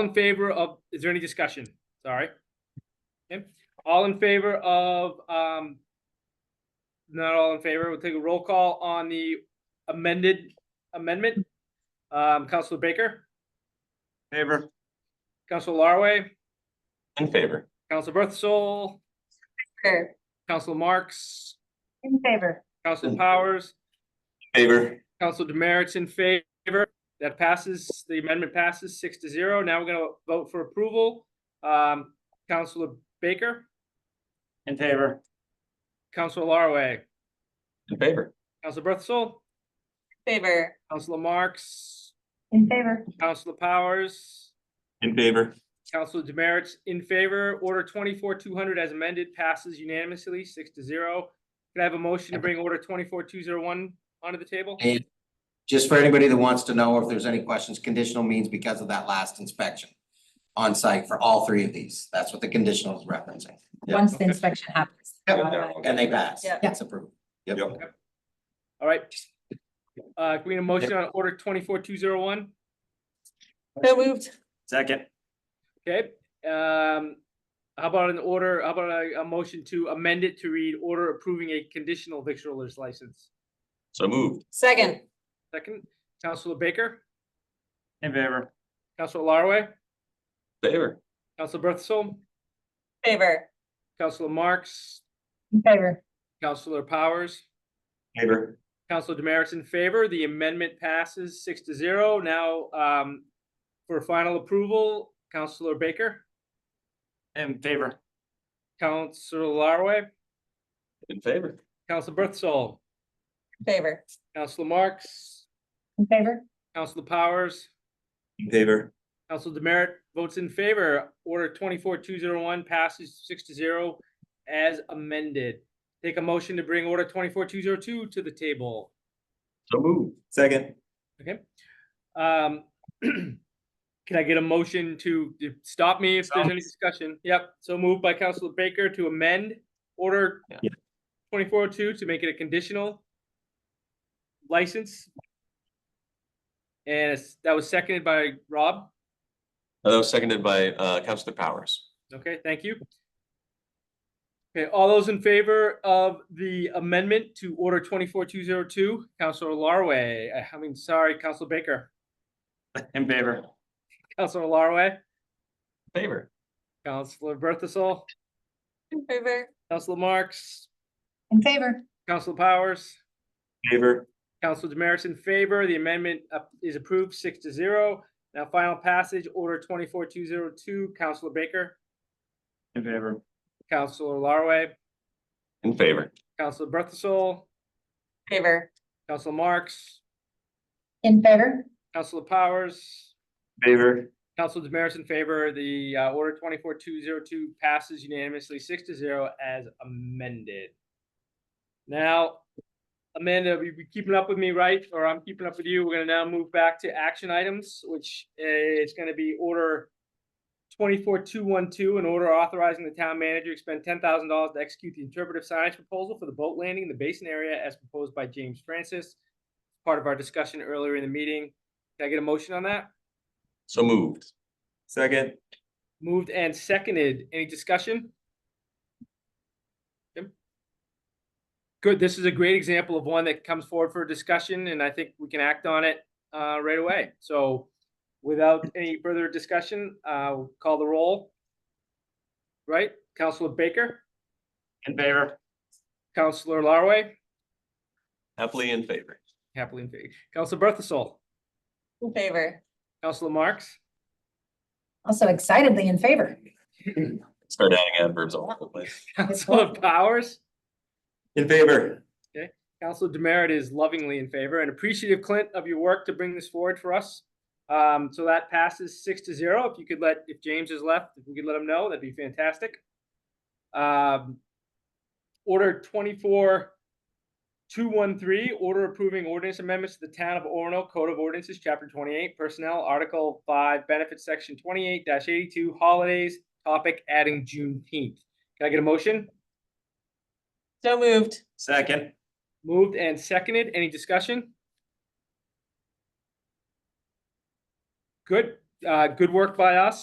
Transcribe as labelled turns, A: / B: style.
A: in favor of, is there any discussion? Sorry. Okay, all in favor of, um, not all in favor, we'll take a roll call on the amended amendment. Um, Counselor Baker,
B: Favor.
A: Counselor Larway,
B: In favor.
A: Counselor Berthasol,
C: Favor.
A: Counselor Marks,
C: In favor.
A: Counselor Powers,
B: Favor.
A: Counselor Demerits in favor. That passes, the amendment passes six to zero. Now we're gonna vote for approval. Um, Counselor Baker,
B: In favor.
A: Counselor Larway,
B: In favor.
A: Counselor Berthasol,
C: Favor.
A: Counselor Marks,
C: In favor.
A: Counselor Powers,
B: In favor.
A: Counselor Demerits in favor. Order twenty-four two hundred as amended passes unanimously, six to zero. Can I have a motion to bring order twenty-four two zero one onto the table?
D: And just for anybody that wants to know if there's any questions, conditional means because of that last inspection on site for all three of these. That's what the conditional is referencing. Yeah.
E: Once
A: Okay.
E: the inspection happens.
D: And they pass.
C: Yeah.
D: It's approved. Yep.
B: Yep.
A: All right. Uh, can we have a motion on order twenty-four two zero one?
C: So moved.
B: Second.
A: Okay, um, how about an order, how about a, a motion to amend it to read order approving a conditional victualer's license?
B: So moved.
C: Second.
A: Second, Counselor Baker,
B: In favor.
A: Counselor Larway,
B: Favor.
A: Counselor Berthasol,
C: Favor.
A: Counselor Marks,
E: In favor.
A: Counselor Powers,
B: Favor.
A: Counselor Demerits in favor. The amendment passes six to zero. Now, um, for final approval, Counselor Baker,
B: In favor.
A: Counselor Larway,
B: In favor.
A: Counselor Berthasol,
C: Favor.
A: Counselor Marks,
E: In favor.
A: Counselor Powers,
B: In favor.
A: Council Demerit votes in favor. Order twenty-four two zero one passes six to zero as amended. Take a motion to bring order twenty-four two zero two to the table.
B: So moved. Second.
A: Okay? Um, can I get a motion to, to stop me if there's any discussion? Yep, so moved by Councilor Baker to amend order
B: Yeah.
A: twenty-four oh two to make it a conditional license. And it's- that was seconded by Rob.
F: Uh, That was seconded by uh, Counselor Powers.
A: Okay, thank you. Okay, all those in favor of the amendment to order twenty-four two zero two, Counselor Larway, I mean, sorry, Counselor Baker,
B: In favor.
A: Counselor Larway,
F: Favor.
A: Counselor Berthasol,
C: In favor.
A: Counselor Marks,
E: In favor.
A: Counselor Powers,
B: Favor.
A: Counselor Demerits in favor. The amendment uh, is approved six to zero. Now final passage, order twenty-four two zero two, Counselor Baker,
B: In favor.
A: Counselor Larway,
F: In favor.
A: Counselor Berthasol,
C: Favor.
A: Counselor Marks,
E: In favor.
A: Counselor Powers,
B: Favor.
A: Council Demerits in favor. The uh, order twenty-four two zero two passes unanimously six to zero as amended. Now, Amanda, you be keeping up with me, right? Or I'm keeping up with you. We're gonna now move back to action items, which uh, is gonna be order twenty-four two one two, an order authorizing the town manager to expend ten thousand dollars to execute the interpretive signage proposal for the boat landing in the basin area as proposed by James Francis. Part of our discussion earlier in the meeting. Can I get a motion on that?
F: So moved.
B: Second.
A: Moved and seconded. Any discussion? Yep. Good. This is a great example of one that comes forward for discussion, and I think we can act on it uh, right away. So without any further discussion, uh, we'll call the roll. Right? Counselor Baker,
B: In favor.
A: Counselor Larway,
F: Happily in favor.
A: happily in favor. Counselor Berthasol,
C: In favor.
A: Counselor Marks,
E: Also excitedly in favor.
F: Start adding adverbs all over the place.
A: Counselor Powers,
B: In favor.
A: Counselor Demerit is lovingly in favor and appreciative, Clint, of your work to bring this forward for us. Um, so that passes six to zero. If you could let, if James is left, if we could let him know, that'd be fantastic. Um, order twenty-four two one three, order approving ordinance amendments to the Town of Orno Code of Ordinances, Chapter twenty-eight, Personnel, Article five, Benefits, Section twenty-eight eighty-two, Holidays, topic adding Juneteenth. Can I get a motion?
C: So moved.
B: Second.
A: Moved and seconded. Any discussion? Good. uh, good work by us.